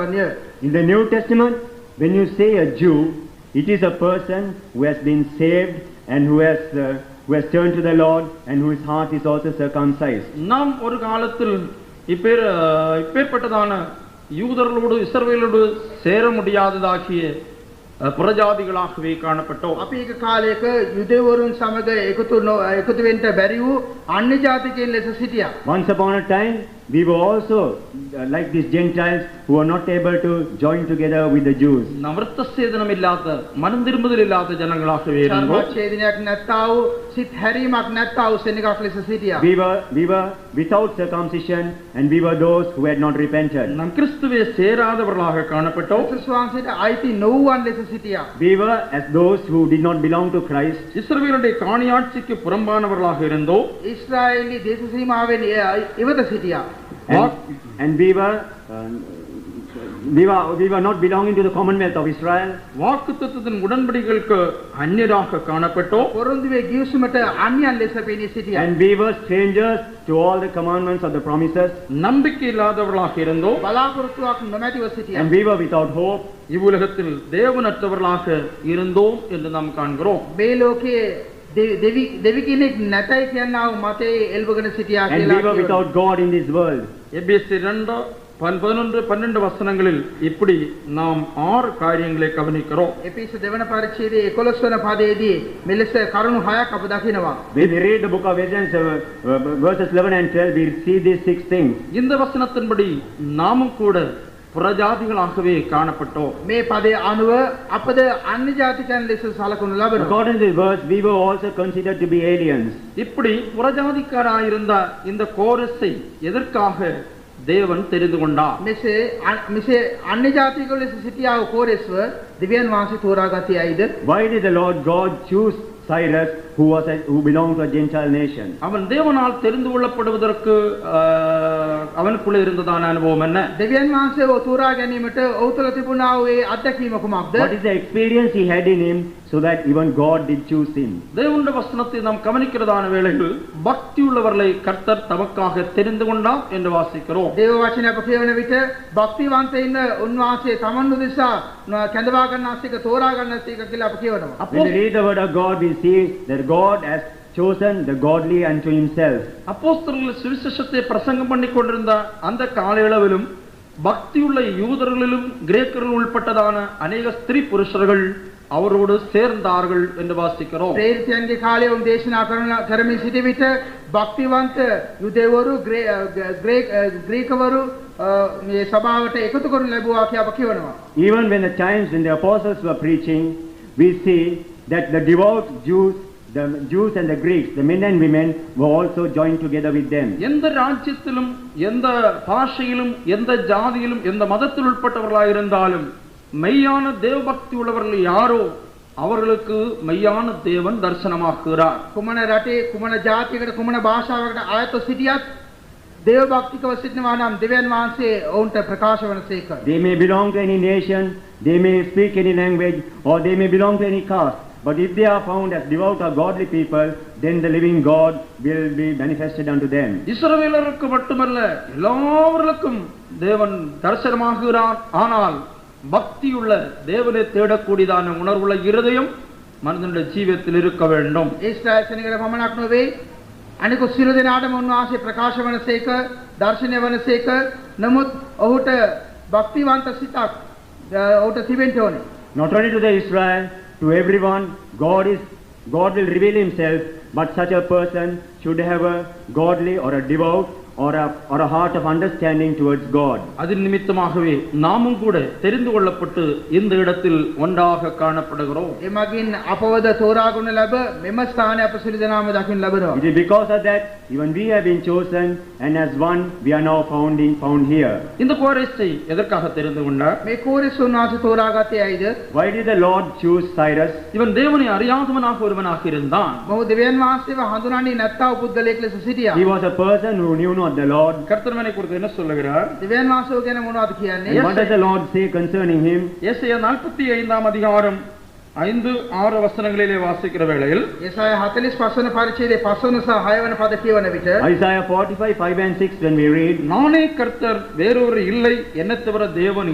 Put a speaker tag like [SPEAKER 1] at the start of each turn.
[SPEAKER 1] Yes.
[SPEAKER 2] In the New Testament, when you say a Jew, it is a person who has been saved and who has, uh, who has turned to the Lord and whose heart is also circumcised.
[SPEAKER 1] நாம் ஒரு காலத்தில் இப்பேர் இப்பேற்பட்டதான யூதர்களோடு இஸ்ரவேலோடு சேர முடியாததாகிய அஹ், புறஜாதிகளாகவே காணப்பட்டோம்
[SPEAKER 3] අපි එක කාලයක යුදෙවරුන් සමග එකතු නො- එකතු වෙන්න බැරි වූ අන්‍ය ජාතිකයන් ලෙස සිටියා.
[SPEAKER 2] Once upon a time, we were also uh, like these Gentiles who were not able to join together with the Jews.
[SPEAKER 1] നവൃത്ത സേതനമില്ലാത്ത മനം തിരുമ്പതിലില്ലാത്ത ജനങ്ങളാകவே ഇരുന്നു
[SPEAKER 3] ඡේදනයක් නැත්තා වූ සිත් හැරීමක් නැත්තා වූ සෙනඟක් ලෙස සිටියා.
[SPEAKER 2] We were, we were without circumcision and we were those who had not repented.
[SPEAKER 1] நம் கிறிஸ்துவே சேராதவர்களாக காணப்பட்டோம்
[SPEAKER 3] ක්‍රිස්තුස් වහන්සේට අයිති නොවුවන් ලෙස සිටියා.
[SPEAKER 2] We were as those who did not belong to Christ.
[SPEAKER 1] இஸ்ரவேலுடைய காணியாட்சிக்கு புறம்பானவர்களாக இருந்தோம்
[SPEAKER 3] ඊශ්‍රායෙලි දේශ සීමාවෙන් එය ඉවත සිටියා.
[SPEAKER 2] And,
[SPEAKER 1] What?
[SPEAKER 2] and we were, uh, we were, we were not belonging to the Commonwealth of Israel.
[SPEAKER 1] வாக்குத்தத்தத்தின் உடன்படிகளுக்கு அந்நியராக காணப்பட்டோம்
[SPEAKER 3] පොරොන්දුවේ ගිවිසුමට අන්‍යයන් ලෙස පෙනී සිටියා.
[SPEAKER 2] And we were strangers to all the commandments of the promises.
[SPEAKER 1] நம்பிக்கை இல்லாதவர்களாக இருந்தோம்
[SPEAKER 3] බලාපොරොත්තුවක් නොමැතිව සිටියා.
[SPEAKER 2] And we were without hope.
[SPEAKER 1] இவ்வுலகத்தில் தேவனற்றவர்களாக இருந்தோம் என்று நாம் காண்கிறோம்
[SPEAKER 3] මේ ලෝකයේ දෙවි- දෙවි දෙවි කෙනෙක් නැතයි කියනාව මතේ එල්බගෙන සිටියා
[SPEAKER 2] And we were
[SPEAKER 3] කියලා.
[SPEAKER 2] without God in this world.
[SPEAKER 1] எபிஎஸ்சி ரெண்டு பன்- பதினொன்று பன்னெண்டு வசனங்களில் இப்படி நாம் ஆறு காரியங்களை கவனிக்கிறோம்
[SPEAKER 3] එපිස දෙවන පරිච්ඡේදයේ 11 වන පදයේදී මෙලෙස කරුණු hයක් අප දකිනවා.
[SPEAKER 2] When we read the book of Ephesians, uh, uh, verses 11 and 12, we see these six things.
[SPEAKER 1] இந்த வசனத்தின்படி நாமும் கூட புறஜாதிகளாகவே காணப்பட்டோம்
[SPEAKER 3] මේ පදය අනුව අපද අන්‍ය ජාතිකයන් ලෙස සලකනු ලබනවා.
[SPEAKER 2] According to the verse, we were also considered to be aliens.
[SPEAKER 1] இப்படி புறஜாதிக்காராயிருந்த இந்த கோரஸை எதற்காக தேவன் தெரிந்து கொண்டார்
[SPEAKER 3] මෙසේ අ- මෙසේ අන්‍ය ජාතිකයෝ ලෙස සිටියා වූ කෝරෙස්ව දිව්‍යන් වහන්සේ තෝරාගතියයිද
[SPEAKER 2] Why did the Lord God choose Cyrus, who, was a, who belonged to a Gentile nation?
[SPEAKER 1] அவன் தேவனால் தெரிந்து கொள்ளப்படுவதற்கு ஆஹ், அவனுக்குள்ளே இருந்ததான அனுபவம் என்ன
[SPEAKER 3] දෙවියන් වහන්සේ ඔහු තෝරා ගැනීමට ඔහු තුළ තිබුණා වූ ඒ අත්දැකීම කුමක්ද?
[SPEAKER 2] What is the experience he had in him so that even God did choose him?
[SPEAKER 1] தேவனுடைய வசனத்தை நாம் கவனிக்கிறதான வேளையில் பக்தியுள்ளவர்களை கர்த்தர் தமக்காக தெரிந்து கொண்டார் என்று வாசிக்கிறோம்
[SPEAKER 3] දේව වචන අප කියවන විට භක්තිවන්තයින්න උන්වහන්සේ තමන්ු දෙසා න- කැඳවා ගන්නාසික තෝරා ගන්නාසික කියලා අප කියවනවා.
[SPEAKER 2] When
[SPEAKER 1] அப்போ
[SPEAKER 2] we read the word of God, we see that God has chosen the godly unto himself.
[SPEAKER 1] அப்போஸ்தலர்கள் சுவிசேஷத்தை பிரசங்கம் பண்ணி கொண்டிருந்த அந்த காலயளவிலும் பக்தியுள்ள யூதர்களிலும் கிரேக்கர்கள் உள்பட்டதான அநேக ஸ்திரீ புருஷர்கள் அவரோடு சேர்ந்தார்கள் என்று வாசிக்கிறோம்
[SPEAKER 3] ප්‍රේරිතයන්ගේ කාලයේ උන් දේශනා කරන කරමින් සිටි විට භක්තිවන්ත යුදෙවරු ග්‍රේ- අ, ග- ග්‍රේක- අ, ග්‍රීකවරු අ, මේ සභාවට එකතු කරනු ලැබුවා කියලා අප කියවනවා.
[SPEAKER 2] Even when the times when the apostles were preaching, we see that the devout Jews, the Jews and the Greeks, the men and women, were also joined together with them.
[SPEAKER 1] எந்த ராஜ்யத்திலும் எந்த பாஷையிலும் எந்த ஜாதியிலும் எந்த மதத்தில் உட்பட்டவர்களாக இருந்தாலும் மெய்யான தேவபக்தி உள்ளவர்கள் யாரோ அவர்களுக்கு மெய்யான தேவன் தரிசனமாக்குகிறார்
[SPEAKER 3] කුමන රටේ කුමන ජාතියකට කුමන භාෂාවකට ආයතව සිටියත් දේව භක්තිකව සිටිනවා නම් දෙවියන් වහන්සේ ඔවුන්ට ප්‍රකාශ වන සේක.
[SPEAKER 2] They may belong to any nation, they may speak any language, or they may belong to any caste. But if they are found as devout or godly people, then the living God will be manifested unto them.
[SPEAKER 1] இஸ்ரவேலருக்கு மட்டுமல்ல எல்லாவர்களுக்கும் தேவன் தரிசனமாகிறார் ஆனால் பக்தியுள்ள தேவனை தேடக்கூடியதான உணர்வுள்ள இருதயம் மனிதனுடைய ஜீவியத்தில் இருக்க வேண்டும்
[SPEAKER 3] ඊශ්‍රායල් සෙනගට පමණක් නොවේ අනිකුත් සියලු දෙනාටම උන්වහන්සේ ප්‍රකාශ වනසේක දර්ශනය වනසේක නමුත් ඔහුට භක්තිවන්ත සිතක් අ, ඔහුට තිබෙන්න ඕනේ
[SPEAKER 2] Not only to the Israel, to everyone, God is God will reveal himself, but such a person should have a godly or a devout or a, or a heart of understanding towards God.
[SPEAKER 1] அதன் நிமித்தமாகவே நாமும் கூட தெரிந்து கொள்ளப்பட்டு இந்த இடத்தில் ஒன்றாக காணப்படுகிறோம்
[SPEAKER 3] එමගින් අපවද තෝරාගුණ ලැබ මෙම ස්ථානය අප සියලු දෙනාම දකින්න
[SPEAKER 2] It
[SPEAKER 3] ලැබෙනවා
[SPEAKER 2] is because of that even we have been chosen, and as one we are now found, in, found here.
[SPEAKER 1] இந்த கோரேசை எதற்காக தெரிந்து கொண்டார்
[SPEAKER 3] මේ කෝරෙස් උන්වහන්සේ තෝරාගත්තේ ඇයිද
[SPEAKER 2] Why did the Lord choose Cyrus?
[SPEAKER 1] இவன் தேவனை அறியாதவனாக ஒருவனாக இருந்தான்
[SPEAKER 3] මොහු දෙවියන් වහන්සේව හඳුනන්නේ නැත්තා වූ පුද්ගලයෙක් ලෙස සිටියා
[SPEAKER 2] He was a person who knew not the Lord.
[SPEAKER 1] கர்த்தர்மனை குறித்து என்ன சொல்லுகிறார்
[SPEAKER 3] දෙවියන් වහන්සේව ගැන මොනවද කියන්නේ
[SPEAKER 2] And what does the Lord say concerning him?
[SPEAKER 1] ஏசாயா நாற்பத்தி ஐந்தாம் அதிகாரம் ஐந்து ஆறு வசனங்களிலே வாசிக்கிற வேளையில்
[SPEAKER 3] යසාය 45 වන පරිච්ඡේදයේ 5 වන සහ 6 වන පද කියවන විට
[SPEAKER 2] Isaiah 45, 5 and 6, when we read,
[SPEAKER 1] நானே கர்த்தர் வேறொரு இல்லை என்ன தவிர தேவன்